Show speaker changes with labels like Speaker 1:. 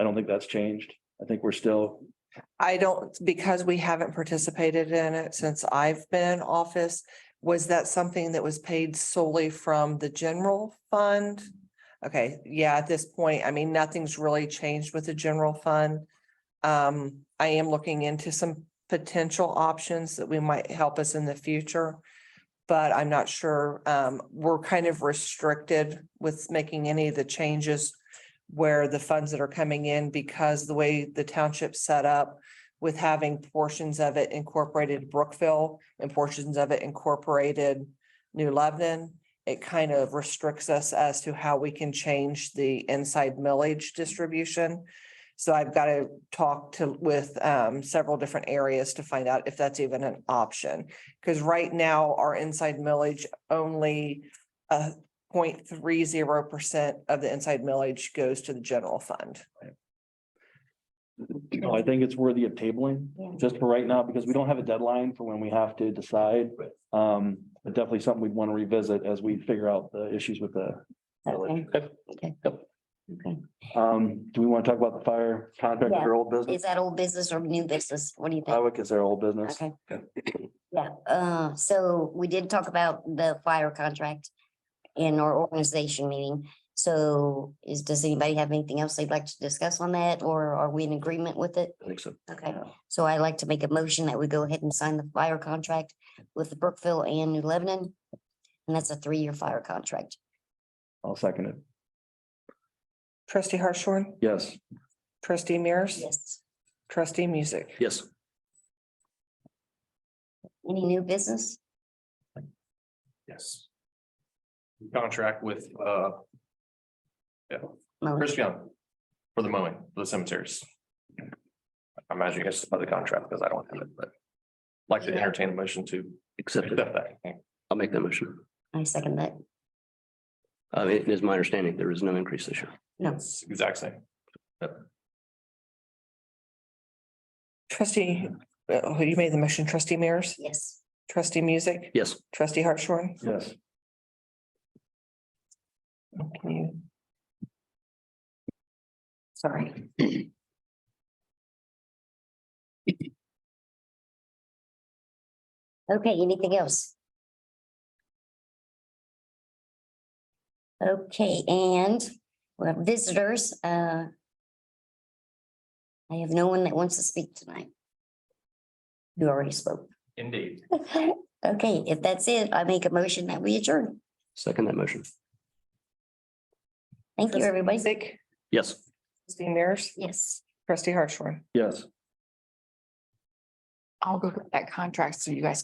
Speaker 1: don't think that's changed. I think we're still,
Speaker 2: I don't, because we haven't participated in it since I've been in office. Was that something that was paid solely from the general fund? Okay, yeah, at this point, I mean, nothing's really changed with the general fund. Um, I am looking into some potential options that we might help us in the future. But I'm not sure, um, we're kind of restricted with making any of the changes where the funds that are coming in because the way the township's set up with having portions of it incorporated Brookville and portions of it incorporated New Lebanon, it kind of restricts us as to how we can change the inside millage distribution. So I've got to talk to with um several different areas to find out if that's even an option. Because right now, our inside millage only uh 0.30 percent of the inside millage goes to the general fund.
Speaker 1: you know, I think it's worthy of tabling just for right now, because we don't have a deadline for when we have to decide. Um, but definitely something we'd want to revisit as we figure out the issues with the.
Speaker 3: Okay,
Speaker 1: Okay.
Speaker 3: okay. Okay,
Speaker 1: Um, do we want to talk about the fire contract or old
Speaker 3: is
Speaker 1: business?
Speaker 3: that old business or new business? What do you
Speaker 1: I
Speaker 3: think?
Speaker 1: would consider old business.
Speaker 3: Okay. Yeah, uh, so we did talk about the fire contract in our organization meeting. So is, does anybody have anything else they'd like to discuss on that or are we in agreement with it?
Speaker 1: I think so.
Speaker 3: Okay, so I'd like to make a motion that we go ahead and sign the fire contract with Brookville and New Lebanon. And that's a three-year fire contract.
Speaker 1: I'll second it.
Speaker 2: Trustee Hartshorn,
Speaker 1: Yes.
Speaker 2: trustee Mears,
Speaker 3: Yes.
Speaker 2: trustee Music.
Speaker 1: Yes.
Speaker 3: Any new business?
Speaker 4: Yes. Contract with, uh,
Speaker 3: Mo-
Speaker 4: Chris Young for the mowing, for the cemeteries. I imagine you guys saw the contract because I don't have it, but like to entertain a motion to
Speaker 5: Accept it.
Speaker 4: accept that.
Speaker 5: I'll make that motion.
Speaker 3: I second that.
Speaker 5: Uh, it is my understanding there is no increase this year.
Speaker 3: No.
Speaker 4: It's Exact same.
Speaker 2: Trustee, uh, you made the motion, trustee Mears,
Speaker 3: Yes.
Speaker 2: trustee Music,
Speaker 5: Yes,
Speaker 2: trustee Hartshorn.
Speaker 1: Yes.
Speaker 2: Can you
Speaker 3: Sorry. Okay, anything else? Okay, and we have visitors, uh. I have no one that wants to speak tonight. You already spoke.
Speaker 4: Indeed.
Speaker 3: Okay, if that's it, I make a motion that we adjourn.
Speaker 5: second that motion.
Speaker 3: Thank you, everybody.
Speaker 2: Music,
Speaker 5: Yes.
Speaker 2: trustee Mears,
Speaker 3: Yes.
Speaker 2: trustee Hartshorn.
Speaker 1: Yes.
Speaker 6: I'll go get that contract so you guys